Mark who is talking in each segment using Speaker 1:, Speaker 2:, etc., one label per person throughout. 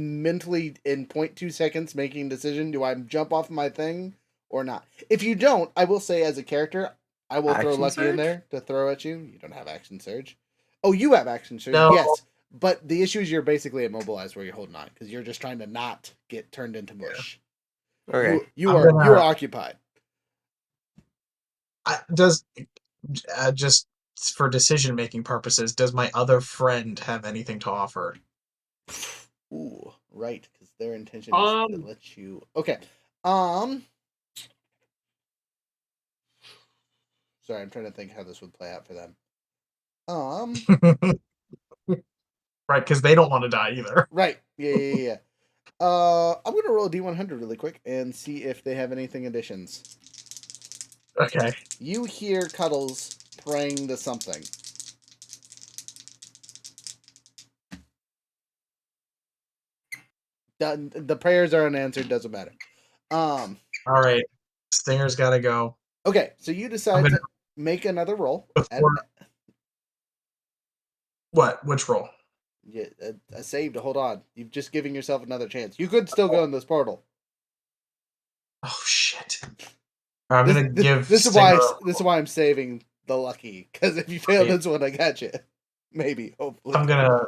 Speaker 1: mentally in 0.2 seconds making a decision do I jump off my thing or not? If you don't, I will say as a character, I will throw
Speaker 2: Action
Speaker 1: Lucky in
Speaker 2: surge?
Speaker 1: there to throw at you. You don't have action surge. Oh, you have action surge.
Speaker 2: No.
Speaker 1: Yes. But the issue is you're basically immobilized where you're holding on because you're just trying to not get turned into mush.
Speaker 2: Okay.
Speaker 1: You, you
Speaker 2: I'm
Speaker 1: are
Speaker 2: gonna-
Speaker 1: you are occupied.
Speaker 2: I, does uh, just for decision making purposes, does my other friend have anything to offer?
Speaker 1: Ooh, right, because their intention is
Speaker 3: Um.
Speaker 1: to let you. Okay. Um. Sorry, I'm trying to think how this would play out for them. Um.
Speaker 2: right, because they don't want to die either.
Speaker 1: Right. Yeah. Yeah. Yeah. yeah. Uh, I'm gonna roll a D100 really quick and see if they have anything additions.
Speaker 2: Okay.
Speaker 1: You hear Cuddles praying to something. Done- The prayers are unanswered. Doesn't matter. Um.
Speaker 2: All right. Stinger's got to go.
Speaker 1: Okay, so you decide
Speaker 2: gonna-
Speaker 1: to make another roll. At,
Speaker 2: Before- What? Which roll?
Speaker 1: yeah, a, a save to hold on. You've just giving yourself another chance. You could still go in this portal.
Speaker 2: Oh shit! All right, I'm
Speaker 1: This-
Speaker 2: gonna
Speaker 1: this,
Speaker 2: give.
Speaker 1: this is why I,
Speaker 2: Stinger
Speaker 1: s-
Speaker 2: a
Speaker 1: this is
Speaker 2: roll.
Speaker 1: why I'm saving the lucky because if you fail
Speaker 2: Yeah.
Speaker 1: this one, I got you. Maybe hopefully.
Speaker 2: I'm gonna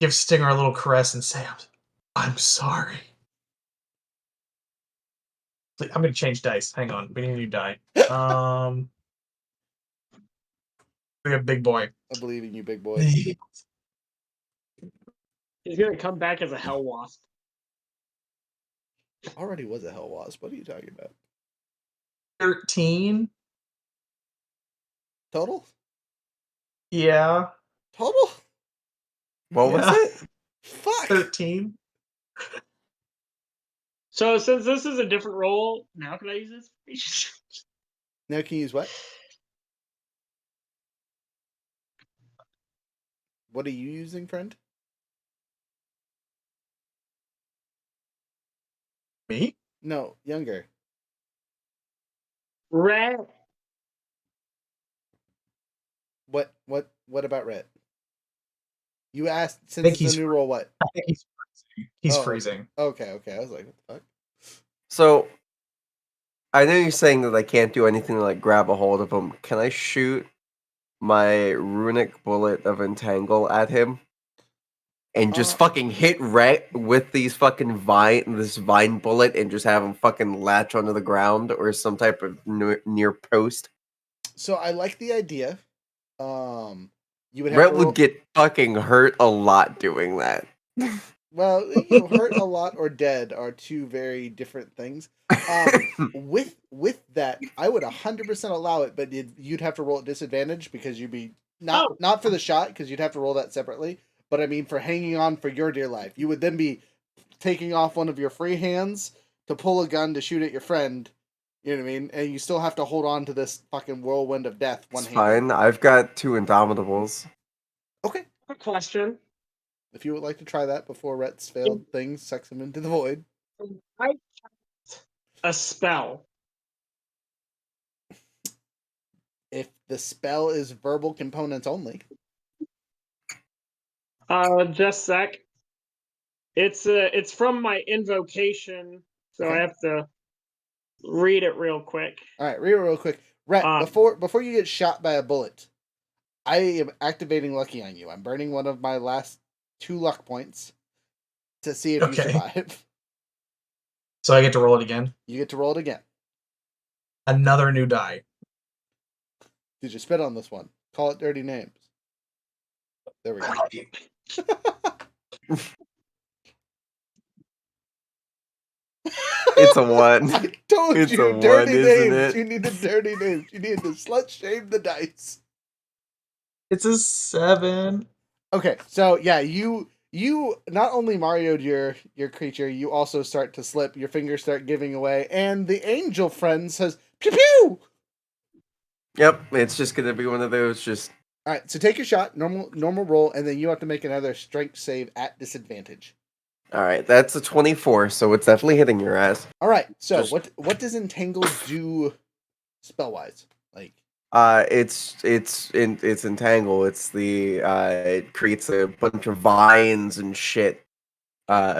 Speaker 2: give Stinger a little caress and say, "I'm, I'm sorry." Wait, I'm gonna change dice. Hang on, we need a new die. Um, we have big boy.
Speaker 1: I believe in you, big boy.
Speaker 2: All
Speaker 3: He's gonna come back as a hell wasp.
Speaker 1: Already was a hell wasp. What are you talking about?
Speaker 2: Thirteen.
Speaker 1: Total?
Speaker 2: Yeah.
Speaker 1: Total?
Speaker 4: What was
Speaker 2: Yeah.
Speaker 4: it?
Speaker 1: Fuck!
Speaker 2: Thirteen.
Speaker 3: So since this is a different role, now can I use this? information?
Speaker 1: Now can you use what? What are you using, friend?
Speaker 2: Me?
Speaker 1: No, younger.
Speaker 3: Red.
Speaker 1: What what what about Rhett? You asked since
Speaker 2: think
Speaker 1: it's
Speaker 2: he's
Speaker 1: a new role what?
Speaker 2: I think he's freezing. He's
Speaker 1: Oh, okay.
Speaker 2: freezing.
Speaker 1: Okay, okay. I was like, what the fuck?
Speaker 4: So I know you're saying that I can't do anything to like grab a hold of him. Can I shoot my runic bullet of entangle at him? And just
Speaker 1: Uh,
Speaker 4: fucking hit Rhett with these fucking vine, this vine bullet, and just have him fucking latch onto the ground or some type of near, near post.
Speaker 1: So I like the idea. Um you would have
Speaker 4: Rhett
Speaker 1: to roll-
Speaker 4: would get fucking hurt a lot doing that.
Speaker 1: well, you know, hurt a lot or dead are two very different things. Um, with with that, I would hundred percent allow it, but you'd, you'd have to roll at disadvantage because you'd be not
Speaker 3: Oh.
Speaker 1: not for the shot because you'd have to roll that separately. But I mean, for hanging on for your dear life, you would then be taking off one of your free hands to pull a gun to shoot at your friend. You know what I mean? And you still have to hold on to this fucking whirlwind of death. One
Speaker 4: It's
Speaker 1: hand.
Speaker 4: fine. I've got two indomitables.
Speaker 1: Okay.
Speaker 3: Quick question.
Speaker 1: If you would like to try that before Rhett's failed thing sucks him into the void.
Speaker 3: Can I cast a spell.
Speaker 1: If the spell is verbal components only.
Speaker 3: Uh, just sec. It's uh, it's from my invocation, so I
Speaker 1: Okay.
Speaker 3: have to read it real quick.
Speaker 1: All right, real real quick, Rhett.
Speaker 3: Um,
Speaker 1: before before you get shot by a bullet, I am activating lucky on you. I'm burning one of my last two luck points to see if you
Speaker 2: Okay.
Speaker 1: survive.
Speaker 2: So I get to roll it again.
Speaker 1: You get to roll it again.
Speaker 2: Another new die.
Speaker 1: Did you spit on this one? Call it dirty names. There we go.
Speaker 4: It's a one.
Speaker 1: I told
Speaker 4: It's
Speaker 1: you,
Speaker 4: a
Speaker 1: dirty
Speaker 4: one, isn't
Speaker 1: names.
Speaker 4: it?
Speaker 1: You needed dirty names. You needed to slut shame the dice.
Speaker 2: It's a seven.
Speaker 1: Okay, so yeah, you you not only marioed your your creature, you also start to slip. Your fingers start giving away, and the angel friend says, "Pew pew."
Speaker 4: Yep, it's just gonna be one of those. Just
Speaker 1: All right, so take your shot, normal normal roll, and then you have to make another strength save at disadvantage.
Speaker 4: all right. That's a twenty-four, so it's definitely hitting your ass.
Speaker 1: All right, so
Speaker 4: Just-
Speaker 1: what what does entangle do spell wise? Like
Speaker 4: Uh, it's it's in, it's entangle. It's the uh, it creates a bunch of vines and shit. Uh,